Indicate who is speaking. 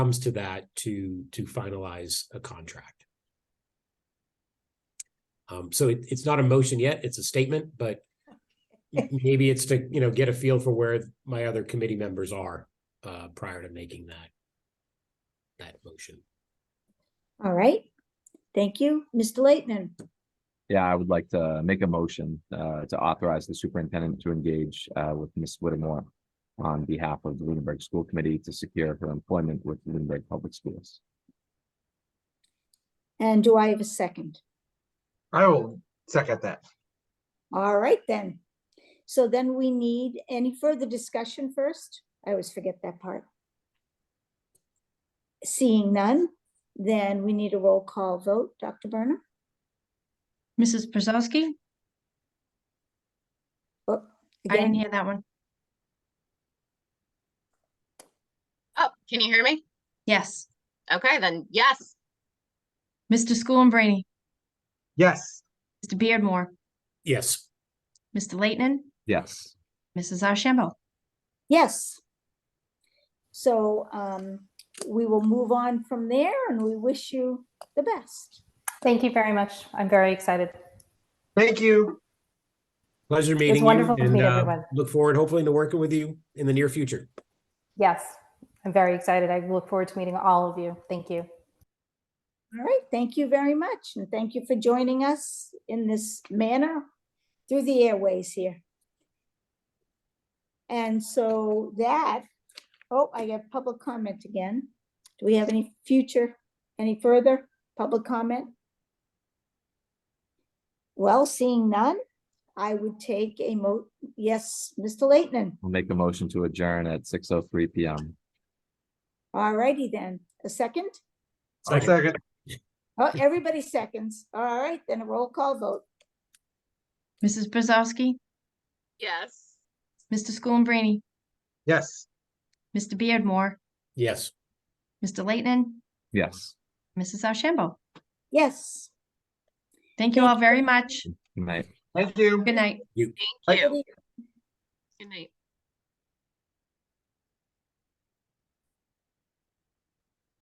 Speaker 1: comes to that to to finalize a contract. Um, so it, it's not a motion yet, it's a statement, but maybe it's to, you know, get a feel for where my other committee members are uh prior to making that that motion.
Speaker 2: All right. Thank you, Mr. Leighton.
Speaker 3: Yeah, I would like to make a motion uh to authorize the superintendent to engage uh with Ms. Whittemore on behalf of the Lunenburg School Committee to secure her employment with Lunenburg Public Schools.
Speaker 2: And do I have a second?
Speaker 4: I will second that.
Speaker 2: All right then. So then we need any further discussion first? I always forget that part. Seeing none, then we need a roll call vote. Dr. Burnham?
Speaker 5: Mrs. Brzezowski?
Speaker 2: Oh,
Speaker 5: I didn't
Speaker 2: again,
Speaker 5: hear that one.
Speaker 6: Oh, can you hear me?
Speaker 5: Yes.
Speaker 6: Okay, then, yes.
Speaker 5: Mr. School and Brainy,
Speaker 4: Yes,
Speaker 5: Mr. Beardmore,
Speaker 1: Yes,
Speaker 5: Mr. Leighton,
Speaker 3: Yes,
Speaker 5: Mrs. Ashambo.
Speaker 2: Yes. So um, we will move on from there and we wish you the best.
Speaker 7: Thank you very much. I'm very excited.
Speaker 4: thank you.
Speaker 1: pleasure meeting you
Speaker 7: wonderful to
Speaker 1: and
Speaker 7: meet
Speaker 1: uh,
Speaker 7: everyone.
Speaker 1: look forward hopefully to working with you in the near future.
Speaker 7: Yes, I'm very excited. I look forward to meeting all of you. Thank you.
Speaker 2: All right, thank you very much and thank you for joining us in this manner through the airways here. And so that, oh, I got public comment again. Do we have any future, any further public comment? Well, seeing none, I would take a mo, yes, Mr. Leighton.
Speaker 3: we'll make a motion to adjourn at six oh three P M.
Speaker 2: All righty then, a second?
Speaker 4: I'll
Speaker 1: Second.
Speaker 4: second.
Speaker 2: Oh, everybody seconds. All right, then a roll call vote.
Speaker 5: Mrs. Brzezowski,
Speaker 6: Yes.
Speaker 5: Mr. School and Brainy,
Speaker 4: Yes,
Speaker 5: Mr. Beardmore,
Speaker 1: Yes.
Speaker 5: Mr. Leighton,
Speaker 3: Yes.
Speaker 5: Mrs. Ashambo.
Speaker 2: Yes.
Speaker 5: Thank you all very much.
Speaker 3: Good night.
Speaker 4: thank you.
Speaker 5: Good night.
Speaker 6: Thank
Speaker 4: Thank
Speaker 6: you. Good night.